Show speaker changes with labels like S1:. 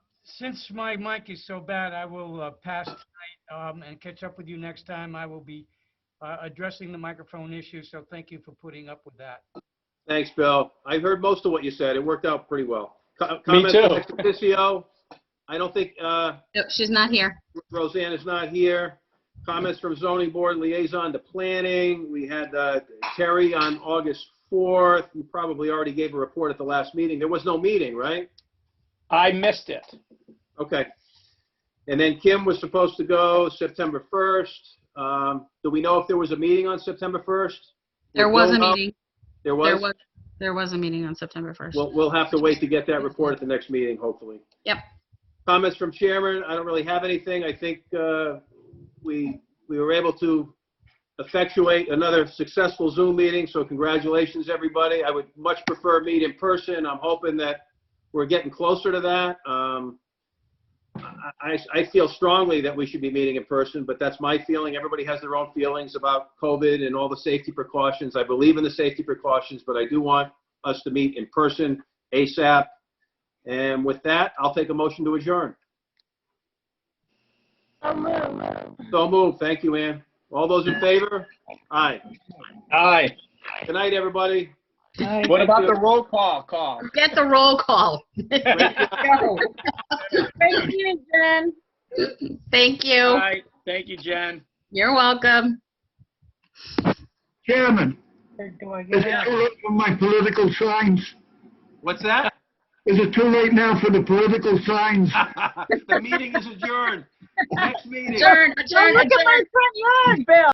S1: since my mic is so bad, I will uh, pass tonight um, and catch up with you next time. I will be uh, addressing the microphone issue, so thank you for putting up with that.
S2: Thanks, Bill. I heard most of what you said. It worked out pretty well. Co-
S3: Me
S2: comments
S3: too.
S2: on ex officio? I don't think uh,
S4: Nope, she's not here.
S2: Roseanne is not here. Comments from zoning board liaison to planning. We had uh, Terry on August 4th. You probably already gave a report at the last meeting. There was no meeting, right?
S3: I missed it.
S2: Okay. And then Kim was supposed to go September 1st. Um, Do we know if there was a meeting on September 1st?
S4: There
S2: Will
S4: was a
S2: know?
S4: meeting.
S2: There
S4: There
S2: was?
S4: was, there was a meeting on September 1st.
S2: We'll, we'll have to wait to get that report at the next meeting, hopefully.
S4: Yep.
S2: Comments from chairman, I don't really have anything. I think uh, we, we were able to effectuate another successful Zoom meeting, so congratulations, everybody. I would much prefer meet in person. I'm hoping that we're getting closer to that. Um, I, I- I feel strongly that we should be meeting in person, but that's my feeling. Everybody has their own feelings about COVID and all the safety precautions. I believe in the safety precautions, but I do want us to meet in person ASAP. And with that, I'll take a motion to adjourn. So moved. Thank you, Ann. All those in favor? Aye.
S3: Aye.
S2: Good night, everybody.
S3: What about the roll call call?
S4: Get the roll call.
S2: Great job.
S5: Thank you, Jen.
S4: Thank you.
S3: Aye. Thank you, Jen.
S4: You're welcome.
S6: Chairman,
S5: Do I
S6: is
S5: get
S6: it too late for my political signs?
S2: What's that?
S6: Is it too late now for the political signs?
S2: The meeting is adjourned. Next meeting.
S4: Adjourn,
S5: Don't
S4: adjourn,
S5: look at
S4: adjourn.
S5: my front yard, Bill.